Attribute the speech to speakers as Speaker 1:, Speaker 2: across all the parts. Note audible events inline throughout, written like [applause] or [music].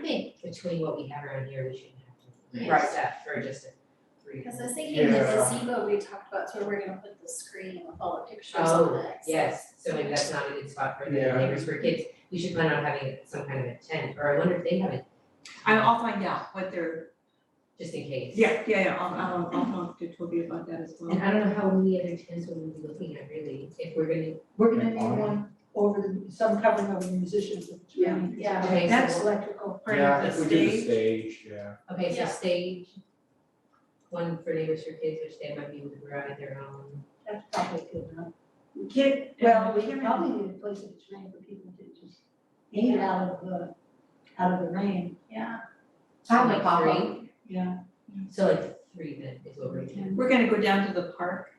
Speaker 1: think between what we have around here, we shouldn't have
Speaker 2: Right.
Speaker 1: to accept for just a three.
Speaker 3: Because I was thinking the
Speaker 4: Yeah.
Speaker 3: gazebo we talked about, so we're gonna put the screen with all the pictures
Speaker 1: Oh,
Speaker 3: on it. so-
Speaker 1: Yes, so maybe that's not a good spot for the
Speaker 4: Yeah.
Speaker 1: neighbors for kids, we should plan on having some kind of a tent, or I wonder if they have it,
Speaker 2: I- I'll find out what they're,
Speaker 1: just in case.
Speaker 2: yeah, yeah, yeah, I'll, I'll, I'll talk to Toby about that as well.
Speaker 1: And I don't know how many other tents we would be looking at really, if we're gonna,
Speaker 5: We're gonna need one over the, some covering over the musicians.
Speaker 2: Yeah.
Speaker 3: Yeah,
Speaker 1: okay,
Speaker 5: That's
Speaker 1: so,
Speaker 5: electrical.
Speaker 2: Or
Speaker 4: Yeah,
Speaker 2: the
Speaker 4: if we do the
Speaker 2: stage.
Speaker 4: stage, yeah.
Speaker 1: okay, so
Speaker 3: Yeah.
Speaker 1: stage. One for neighbors for kids, which they might be able to provide their own.
Speaker 5: That's probably good enough.
Speaker 2: Kid,
Speaker 5: Well, we probably need a place that's made for people to just hang it out of the, out of the rain.
Speaker 3: yeah.
Speaker 1: So
Speaker 5: Probably
Speaker 1: like three,
Speaker 5: Yeah.
Speaker 1: So like three then is what we're doing.
Speaker 2: We're gonna go down to the park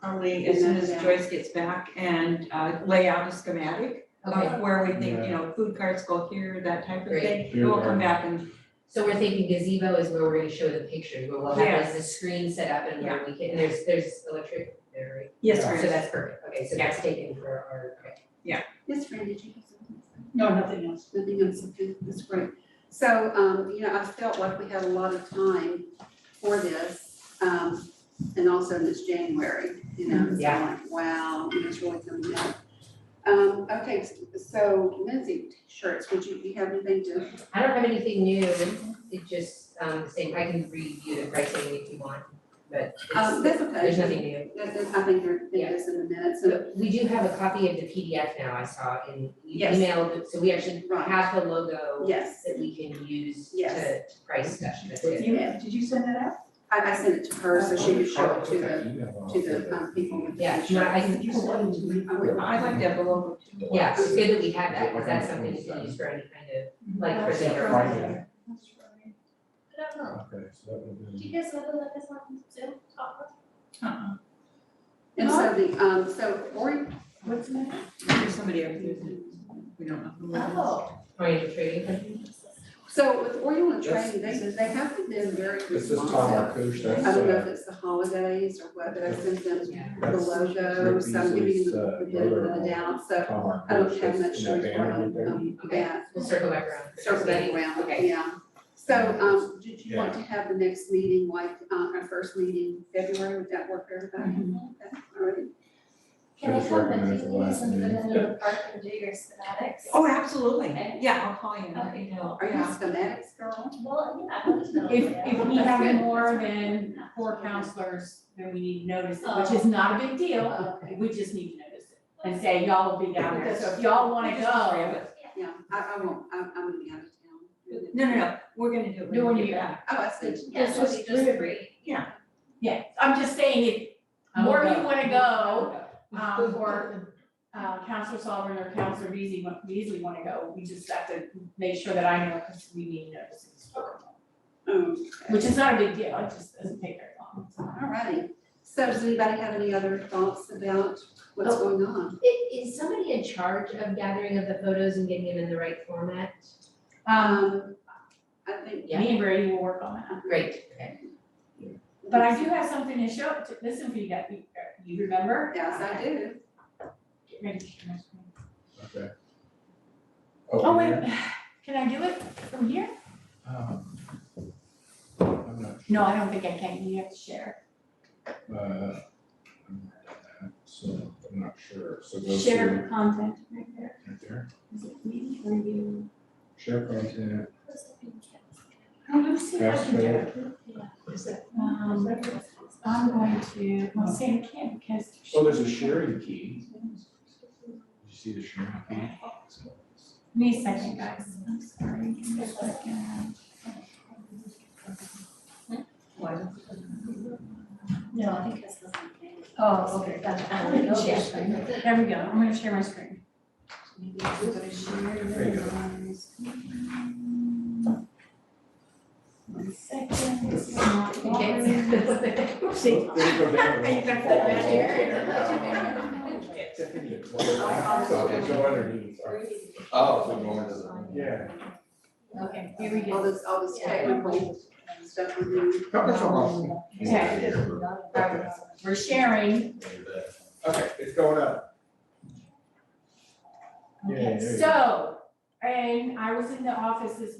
Speaker 2: probably as soon as
Speaker 3: Yeah.
Speaker 2: Joyce gets back and uh, lay out a schematic
Speaker 1: Okay,
Speaker 2: of where we think, you
Speaker 4: Yeah.
Speaker 2: know, food carts go here, that type of
Speaker 1: Great.
Speaker 2: thing. And We'll come back and,
Speaker 1: so we're thinking gazebo is where we're gonna show the pictures, where we'll have like the screen set up and where we can, and there's, there's electric there,
Speaker 2: yes,
Speaker 4: Yeah.
Speaker 1: right? So
Speaker 2: Chris,
Speaker 1: that's perfect, okay, so that's taken for our, okay.
Speaker 6: Yes, Fran, did you have something? to say?
Speaker 5: No, nothing else.
Speaker 6: Nothing else, okay, that's great. So, um, you know, I felt like we had a lot of time for this, um, and also in this January, you know, it's
Speaker 1: Yeah.
Speaker 6: like, wow, you know, it's really coming up. Um, okay, so Lindsay, shirts, would you, you have anything to,
Speaker 1: I don't have anything new, it just, um, the same, I can review the pricing if you want, but
Speaker 6: um,
Speaker 1: it's,
Speaker 6: that's okay.
Speaker 1: there's nothing new.
Speaker 6: That- that- I think you're,
Speaker 1: Yeah.
Speaker 6: this in the minutes, so,
Speaker 1: So we do have a copy of the PDF now, I saw in you
Speaker 6: Yes.
Speaker 1: emailed, so we actually
Speaker 6: Right.
Speaker 1: have the logo
Speaker 6: yes,
Speaker 1: that we can use to
Speaker 6: Yes.
Speaker 1: to price stuff, that's it.
Speaker 5: You, did you send that out?
Speaker 6: I, I sent it to her, so she could show it to the, to
Speaker 4: the,
Speaker 6: the, um, people with the
Speaker 1: Yeah,
Speaker 6: shirts.
Speaker 1: no, I can,
Speaker 5: You sent it to me.
Speaker 6: I would-
Speaker 2: I'd like to have a logo too.
Speaker 1: yeah, it's good that we have that, because that's something you can use for any kind of, like, for
Speaker 4: Yeah,
Speaker 1: their.
Speaker 4: right there.
Speaker 3: I don't know,
Speaker 4: Okay, so that would
Speaker 3: uh, do
Speaker 4: be.
Speaker 3: you guys know that this on Zoom, talk about?
Speaker 2: Uh-uh.
Speaker 6: And so the, um, so Ori, what's the name?
Speaker 2: There's somebody up there that we don't know who it is.
Speaker 3: Oh.
Speaker 1: Oriented trading.
Speaker 6: So with Oriole and Trading, they, they haven't been very
Speaker 4: This is Tom
Speaker 6: responsive.
Speaker 4: Markush,
Speaker 6: I
Speaker 4: that's,
Speaker 6: don't know if
Speaker 4: uh,
Speaker 6: it's the holidays or what, but I sent them
Speaker 1: Yeah.
Speaker 6: the
Speaker 4: that's Tom
Speaker 6: logo, so I'm giving
Speaker 4: Beasley's,
Speaker 6: them
Speaker 4: uh,
Speaker 6: the benefit of the
Speaker 4: brother-in-law.
Speaker 6: doubt, so
Speaker 4: Markush,
Speaker 6: I don't have
Speaker 4: uh, that's in
Speaker 6: much
Speaker 4: that
Speaker 6: choice
Speaker 4: banner right there.
Speaker 6: on, um,
Speaker 1: Okay,
Speaker 6: that.
Speaker 1: we'll circle back around.
Speaker 6: Circle that around,
Speaker 1: Okay.
Speaker 6: yeah. So, um, did you want to have the next meeting, like, uh, our first meeting in February, would that work for
Speaker 3: Mm-hmm.
Speaker 6: everybody? Okay, all right.
Speaker 3: Can I
Speaker 4: Should've
Speaker 3: come and
Speaker 4: recognized
Speaker 3: see
Speaker 4: the
Speaker 3: you
Speaker 4: last
Speaker 3: and
Speaker 4: name.
Speaker 3: then go to the park and do your schematics?
Speaker 2: Oh, absolutely.
Speaker 3: Okay.
Speaker 2: Yeah, I'll call you and let
Speaker 3: Okay.
Speaker 2: you know.
Speaker 6: Are you a
Speaker 2: Yeah.
Speaker 6: schematics girl?
Speaker 3: Well, yeah, I don't know.
Speaker 7: If, if we have
Speaker 6: That's good.
Speaker 7: more than four counselors, then we need to notice it, which
Speaker 3: Oh.
Speaker 7: is not a big deal.
Speaker 6: Okay,
Speaker 7: We just need to notice it and say, y'all will be down there, so if y'all wanna
Speaker 2: Just grab
Speaker 7: go.
Speaker 2: it.
Speaker 6: yeah, I, I won't, I'm, I'm gonna be out of town.
Speaker 2: No, no, no, we're gonna do it.
Speaker 7: No, when you
Speaker 2: get
Speaker 7: get
Speaker 2: back.
Speaker 6: Oh, I see.
Speaker 3: Yeah,
Speaker 1: This
Speaker 3: it'll
Speaker 1: was
Speaker 3: be just free.
Speaker 7: Yeah, I'm just saying, if more of you
Speaker 5: [laughs]
Speaker 7: wanna go,
Speaker 5: Oh,
Speaker 7: um, or, uh, Counselor Sullivan or Counselor Beasley, wa- Beasley wanna go, we just have to make sure that I know, cause we need notices.
Speaker 6: Okay.
Speaker 7: Which is not a big deal, it just doesn't take very long.
Speaker 6: All righty. So does anybody have any other thoughts about what's going on?
Speaker 1: I- Is somebody in charge of gathering of the photos and getting them in the right format?
Speaker 7: Um,
Speaker 6: Um, I think,
Speaker 1: Yeah.
Speaker 7: me and Brady will work on that.
Speaker 1: Great, okay.
Speaker 7: But I do have something to show, to listen for you guys, you remember?
Speaker 6: yes, I do.
Speaker 7: Get ready to share my screen.
Speaker 6: um,
Speaker 4: Okay.
Speaker 7: Oh,
Speaker 4: yeah.
Speaker 7: wait, can I do it from here?
Speaker 4: Um, I'm not,
Speaker 7: No, I don't think I can, you have to share.
Speaker 4: uh, I'm not that, so I'm not sure, so go to.
Speaker 7: Share content right there.
Speaker 4: Right there,
Speaker 7: Is it me or you?
Speaker 4: share content,
Speaker 7: Oh, let's see if I can do it.
Speaker 1: Is that-
Speaker 7: Um, I'm going to, well, see, I can't because.
Speaker 4: oh, there's a sharing key. Did you see the sharing key?
Speaker 7: Me second, guys, I'm sorry. Give me a second.
Speaker 3: No, I think this is okay.
Speaker 7: Oh, okay, gotcha. I'm gonna share screen. There we go, I'm gonna share my screen.
Speaker 6: Maybe I should go to share
Speaker 4: There you go.
Speaker 6: otherwise.
Speaker 7: One second, this is not.
Speaker 1: [laughs]
Speaker 4: Look, there you go, down the
Speaker 7: [laughs] You got that right
Speaker 4: hall. Tiffany, it's one of my- so they go underneath. Oh, so go under the- yeah.
Speaker 7: Okay, here we
Speaker 6: All
Speaker 7: go.
Speaker 6: this, all this technical stuff we do.
Speaker 4: Come on, come on.
Speaker 7: Okay.
Speaker 4: Okay.
Speaker 7: We're sharing.
Speaker 4: Okay, it's going up. Yeah, there you go.
Speaker 7: So, And I was in the office this